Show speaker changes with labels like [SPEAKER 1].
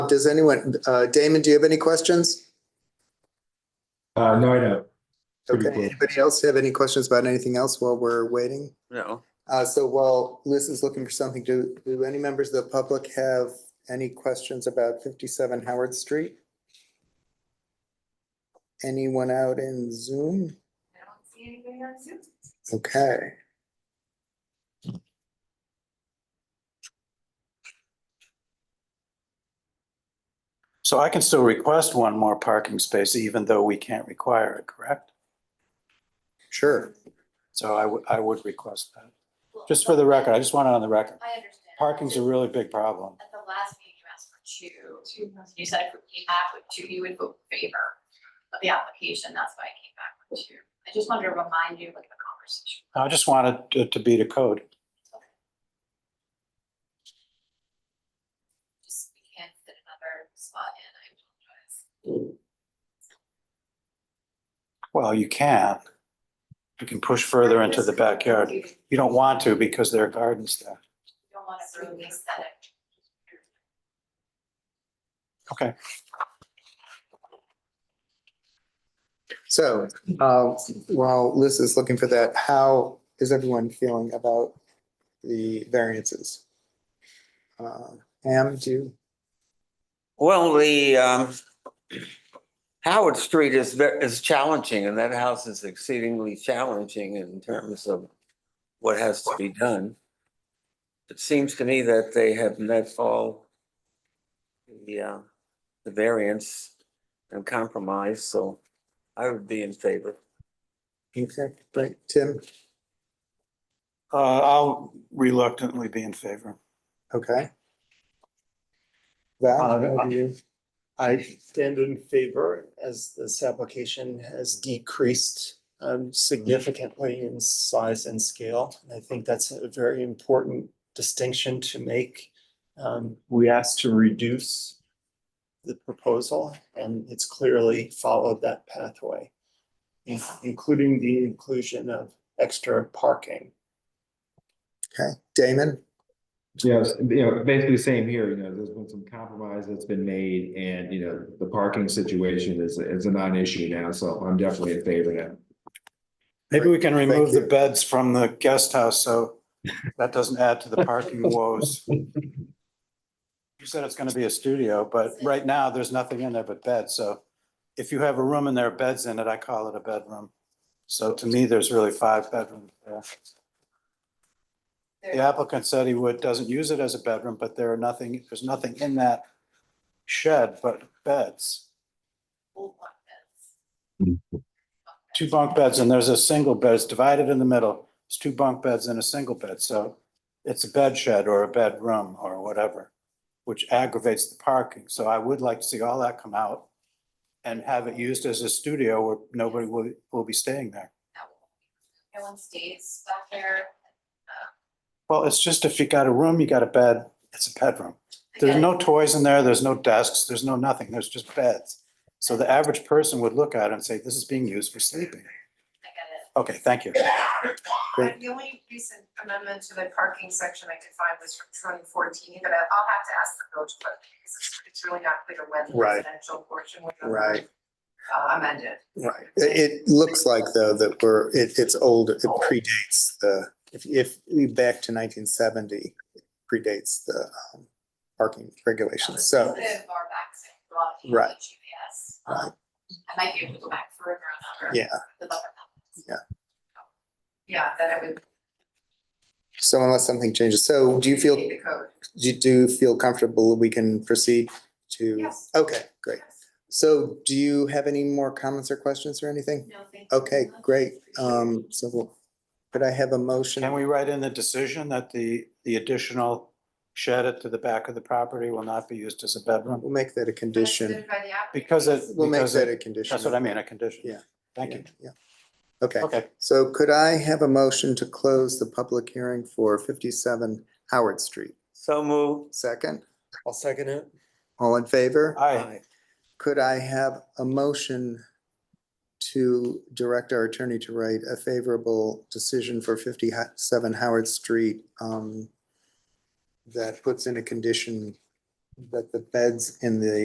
[SPEAKER 1] does anyone, uh, Damon, do you have any questions?
[SPEAKER 2] Uh, no, I don't. Pretty
[SPEAKER 1] Okay,
[SPEAKER 2] cool.
[SPEAKER 1] anybody else have any questions about anything else while we're waiting?
[SPEAKER 3] No.
[SPEAKER 1] Uh, so while Liz is looking for something, do, do any members of the public have any questions about fifty-seven Howard Street? Anyone out in Zoom?
[SPEAKER 4] I don't see anybody on Zoom.
[SPEAKER 1] Okay.
[SPEAKER 5] So I can still request one more parking space even though we can't require it, correct?
[SPEAKER 1] Sure.
[SPEAKER 5] So I would, I would request that. Just for the record, I just want it on the record.
[SPEAKER 4] I understand.
[SPEAKER 5] Parking's a really big problem.
[SPEAKER 4] At the last meeting, you asked for two. You said if you have with two, you would vote in favor of the application. That's why I came back with two. I just wanted to remind you of the conversation.
[SPEAKER 5] I just wanted to, to be to code.
[SPEAKER 4] Just, we can't fit another spot in. I apologize.
[SPEAKER 5] Well, you can. You can push further into the backyard.
[SPEAKER 4] You
[SPEAKER 5] You don't want to because there are gardens there.
[SPEAKER 4] don't want to ruin the aesthetic.
[SPEAKER 5] Okay.
[SPEAKER 1] So, uh, while Liz is looking for that, how is everyone feeling about the variances? Uh, Pam, do you?
[SPEAKER 3] Well, the um, Howard Street is, ve- is challenging and that house is exceedingly challenging in terms of what has to be done. It seems to me that they have met all the, uh, the variance and compromise, so I would be in favor.
[SPEAKER 1] Okay, right, Tim,
[SPEAKER 5] Uh, I'll reluctantly be in favor.
[SPEAKER 1] okay. Val,
[SPEAKER 6] Uh,
[SPEAKER 1] how do you?
[SPEAKER 6] I stand in favor as this application has decreased um, significantly in size and scale. And I think that's a very important distinction to make. Um, We asked to reduce the proposal and it's clearly followed that pathway, in- including the inclusion of extra parking.
[SPEAKER 1] Okay, Damon,
[SPEAKER 2] You know, s- you know, basically same here, you know, there's been some compromise that's been made and, you know, the parking situation is, is a non-issue now, so I'm definitely in favor of that.
[SPEAKER 5] Maybe we can
[SPEAKER 1] Thank
[SPEAKER 5] remove the
[SPEAKER 1] you.
[SPEAKER 5] beds from the guest house, so that doesn't add to the parking woes. You said it's gonna be a studio, but right now, there's nothing in there but beds, so if you have a room and there are beds in it, I call it a bedroom. So to me, there's really five bedrooms there. The applicant said he would, doesn't use it as a bedroom, but there are nothing, there's nothing in that shed but beds.
[SPEAKER 4] Old one is.
[SPEAKER 5] two bunk beds and there's a single bed, it's divided in the middle. It's two bunk beds and a single bed, so it's a bed shed or a bedroom or whatever, which aggravates the parking. So I would like to see all that come out and have it used as a studio where nobody will, will be staying there.
[SPEAKER 4] That will- No one stays back there.
[SPEAKER 5] Well, it's just if you got a room, you got a bed, it's a bedroom. There's
[SPEAKER 4] Again,
[SPEAKER 5] no toys in there, there's no desks, there's no nothing, there's just beds. So the average person would look at it and say, this is being used for sleeping.
[SPEAKER 4] I get it.
[SPEAKER 5] Okay, thank you.
[SPEAKER 1] Great.
[SPEAKER 7] The only recent amendment to the parking section I could find was from twenty fourteen, but I- I'll have to ask the village clerk because it's- it's really not clear when the
[SPEAKER 1] Right.
[SPEAKER 7] residential portion was
[SPEAKER 1] Right.
[SPEAKER 7] uh, amended.
[SPEAKER 1] right, it, it looks like though that we're, it, it's old, it predates the, if, if we back to nineteen seventy, predates the um, parking regulations, so.
[SPEAKER 4] Live far back, so a lot of people
[SPEAKER 1] Right.
[SPEAKER 4] have GPS. Um, I might be able to go back further on that.
[SPEAKER 1] Yeah.
[SPEAKER 4] The buffer.
[SPEAKER 7] Yeah, then it would
[SPEAKER 1] So unless something changes, so do you feel,
[SPEAKER 7] be the code.
[SPEAKER 1] do you do feel comfortable we can proceed to?
[SPEAKER 7] Yes.
[SPEAKER 1] Okay, great. So do you have any more comments or questions or anything?
[SPEAKER 4] No, thank you.
[SPEAKER 1] Okay, great. Um, so we'll- could I have a motion?
[SPEAKER 5] Can we write in the decision that the, the additional shed at to the back of the property will not be used as a bedroom?
[SPEAKER 1] We'll make that a condition.
[SPEAKER 7] Amended by the applicant.
[SPEAKER 5] Because it,
[SPEAKER 1] We'll make
[SPEAKER 5] because
[SPEAKER 1] that a
[SPEAKER 5] it,
[SPEAKER 1] condition.
[SPEAKER 5] that's what I mean, a condition.
[SPEAKER 1] Yeah.
[SPEAKER 5] Thank you.
[SPEAKER 1] Yeah. Okay,
[SPEAKER 5] Okay,
[SPEAKER 1] so could I have a motion to close the public hearing for fifty-seven Howard Street?
[SPEAKER 3] So move.
[SPEAKER 1] Second,
[SPEAKER 6] I'll second it.
[SPEAKER 1] all in favor?
[SPEAKER 5] aye.
[SPEAKER 1] Could I have a motion to direct our attorney to write a favorable decision for fifty-seven Howard Street? um, That puts in a condition that the beds in the